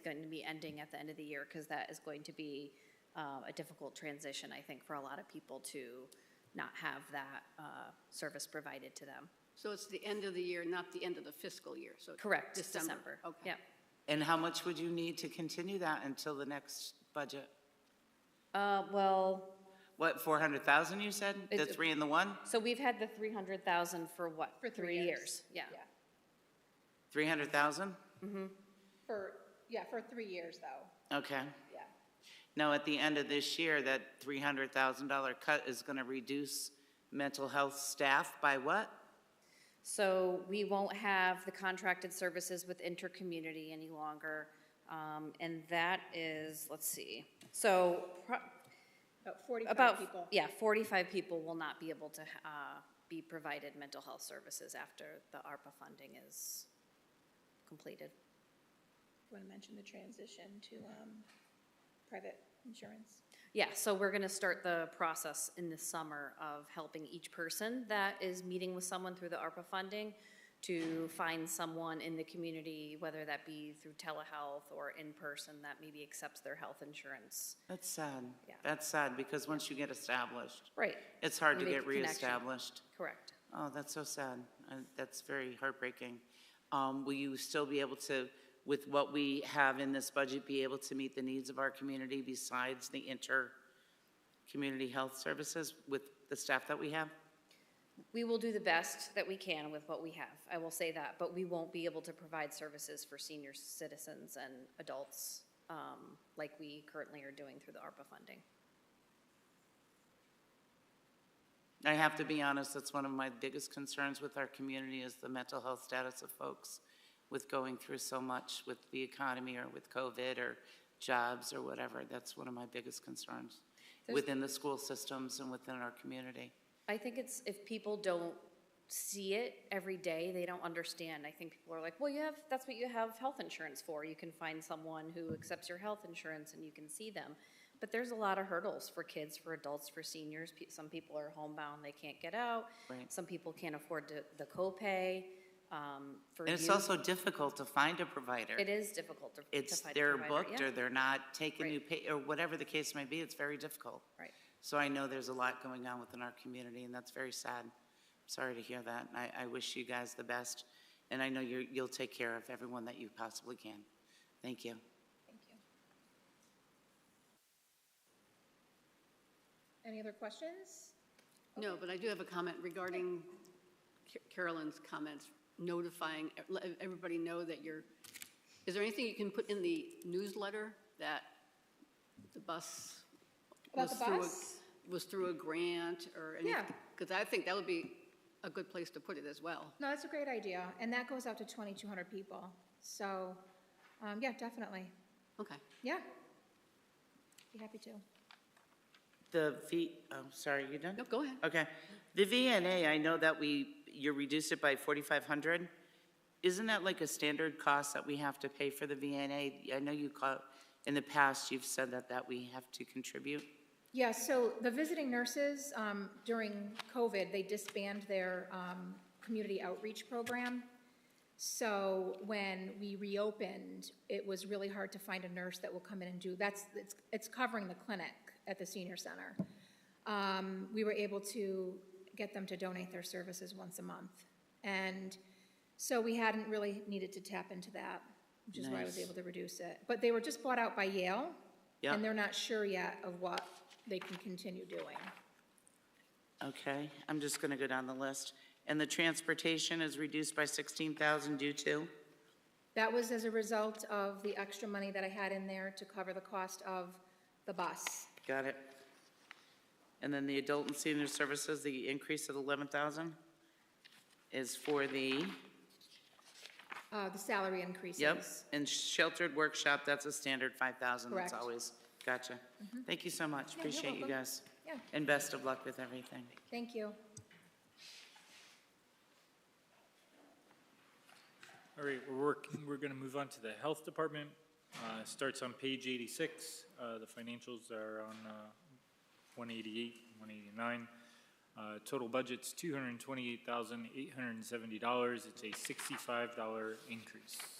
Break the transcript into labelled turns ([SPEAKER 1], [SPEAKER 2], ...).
[SPEAKER 1] going to be ending at the end of the year, because that is going to be uh, a difficult transition, I think, for a lot of people to not have that uh, service provided to them.
[SPEAKER 2] So it's the end of the year, not the end of the fiscal year, so.
[SPEAKER 1] Correct,
[SPEAKER 2] December.
[SPEAKER 1] December.
[SPEAKER 2] Okay.
[SPEAKER 1] Yep.
[SPEAKER 3] And how much would you need to continue that until the next budget?
[SPEAKER 1] Uh, Well,
[SPEAKER 3] What, 400,000 you said? The
[SPEAKER 1] It's-
[SPEAKER 3] three and the one?
[SPEAKER 1] so we've had the 300,000 for what?
[SPEAKER 4] For three years.
[SPEAKER 1] Yeah.
[SPEAKER 3] 300,000?
[SPEAKER 4] For, yeah, for three years, though,
[SPEAKER 3] Okay.
[SPEAKER 4] yeah.
[SPEAKER 3] Now, at the end of this year, that $300,000 cut is going to reduce mental health staff by what?
[SPEAKER 1] So we won't have the contracted services with intercommunity any longer. Um, And that is, let's see, so pro-
[SPEAKER 4] About 45
[SPEAKER 1] about,
[SPEAKER 4] people.
[SPEAKER 1] yeah, 45 people will not be able to uh, be provided mental health services after the ARPA funding is completed.
[SPEAKER 4] Want to mention the transition to um, private insurance?
[SPEAKER 1] Yeah, so we're going to start the process in the summer of helping each person that is meeting with someone through the ARPA funding to find someone in the community, whether that be through telehealth or in person, that maybe accepts their health insurance.
[SPEAKER 3] That's sad.
[SPEAKER 1] Yeah.
[SPEAKER 3] That's sad, because once you get established,
[SPEAKER 1] Right,
[SPEAKER 3] it's hard to
[SPEAKER 1] Make
[SPEAKER 3] get
[SPEAKER 1] the connection.
[SPEAKER 3] reestablished.
[SPEAKER 1] correct.
[SPEAKER 3] Oh, that's so sad. Uh, That's very heartbreaking. Um, Will you still be able to, with what we have in this budget, be able to meet the needs of our community besides the inter-community health services with the staff that we have?
[SPEAKER 1] We will do the best that we can with what we have, I will say that, but we won't be able to provide services for senior citizens and adults um, like we currently are doing through the ARPA funding.
[SPEAKER 3] I have to be honest, that's one of my biggest concerns with our community is the mental health status of folks with going through so much with the economy or with COVID or jobs or whatever. That's one of my biggest concerns
[SPEAKER 1] There's-
[SPEAKER 3] within the school systems and within our community.
[SPEAKER 1] I think it's if people don't see it every day, they don't understand. I think people are like, well, you have, that's what you have health insurance for. You can find someone who accepts your health insurance and you can see them. But there's a lot of hurdles for kids, for adults, for seniors. Pe- Some people are homebound, they can't get out.
[SPEAKER 3] Right.
[SPEAKER 1] Some people can't afford to, the copay. Um, for
[SPEAKER 3] And it's
[SPEAKER 1] youth,
[SPEAKER 3] also difficult to find a provider.
[SPEAKER 1] It is difficult to. to
[SPEAKER 3] It's,
[SPEAKER 1] find a
[SPEAKER 3] they're
[SPEAKER 1] provider,
[SPEAKER 3] booked
[SPEAKER 1] yeah,
[SPEAKER 3] or they're not taking new
[SPEAKER 1] Right.
[SPEAKER 3] pay, or whatever the case may be, it's very difficult.
[SPEAKER 1] Right.
[SPEAKER 3] So I know there's a lot going on within our community, and that's very sad. Sorry to hear that, and I, I wish you guys the best, and I know you're, you'll take care of everyone that you possibly can. Thank you.
[SPEAKER 4] Thank you. Any other questions?
[SPEAKER 2] No, but I do have a comment regarding Ca- Carolyn's comments, notifying, e, let everybody know that you're, is there anything you can put in the newsletter that the bus
[SPEAKER 4] About
[SPEAKER 2] was
[SPEAKER 4] the
[SPEAKER 2] through? a-
[SPEAKER 4] bus?
[SPEAKER 2] Was through a grant or anything?
[SPEAKER 4] Yeah.
[SPEAKER 2] Because I think that would be a good place to put it as well.
[SPEAKER 4] No, that's a great idea, and that goes out to 2,200 people. So, um, yeah, definitely,
[SPEAKER 2] Okay.
[SPEAKER 4] yeah. Be happy to.
[SPEAKER 3] The V, oh, sorry, you done?
[SPEAKER 2] No, go ahead.
[SPEAKER 3] Okay. The VNA, I know that we, you reduced it by 4,500. Isn't that like a standard cost that we have to pay for the VNA? I know you call, in the past, you've said that, that we have to contribute.
[SPEAKER 4] Yeah, so the visiting nurses, um, during COVID, they disbanded their, um, community outreach program. So when we reopened, it was really hard to find a nurse that will come in and do, that's, it's, it's covering the clinic at the senior center. Um, we were able to get them to donate their services once a month. And so we hadn't really needed to tap into that, which is why I was
[SPEAKER 3] Nice.
[SPEAKER 4] able to reduce it. But they were just bought out by Yale.
[SPEAKER 3] Yeah.
[SPEAKER 4] And they're not sure yet of what they can continue doing.
[SPEAKER 3] Okay, I'm just going to go down the list. And the transportation is reduced by 16,000 due to?
[SPEAKER 4] That was as a result of the extra money that I had in there to cover the cost of the bus.
[SPEAKER 3] Got it. And then the adult and senior services, the increase of 11,000 is for the,
[SPEAKER 4] Uh, the salary increases.
[SPEAKER 3] yep, and sheltered workshop, that's a standard 5,000.
[SPEAKER 4] Correct. Mm-hmm.
[SPEAKER 3] That's always, gotcha. Thank you so much,
[SPEAKER 4] you're
[SPEAKER 3] appreciate you
[SPEAKER 4] welcome.
[SPEAKER 3] guys.
[SPEAKER 4] Yeah.
[SPEAKER 3] And best of luck with everything.
[SPEAKER 4] Thank you.
[SPEAKER 5] All right, we're working, we're going to move on to the Health Department. Uh, Starts on page 86. Uh, The financials are on uh, 188, 189. Uh, Total budget's $228,870. It's a $65 increase.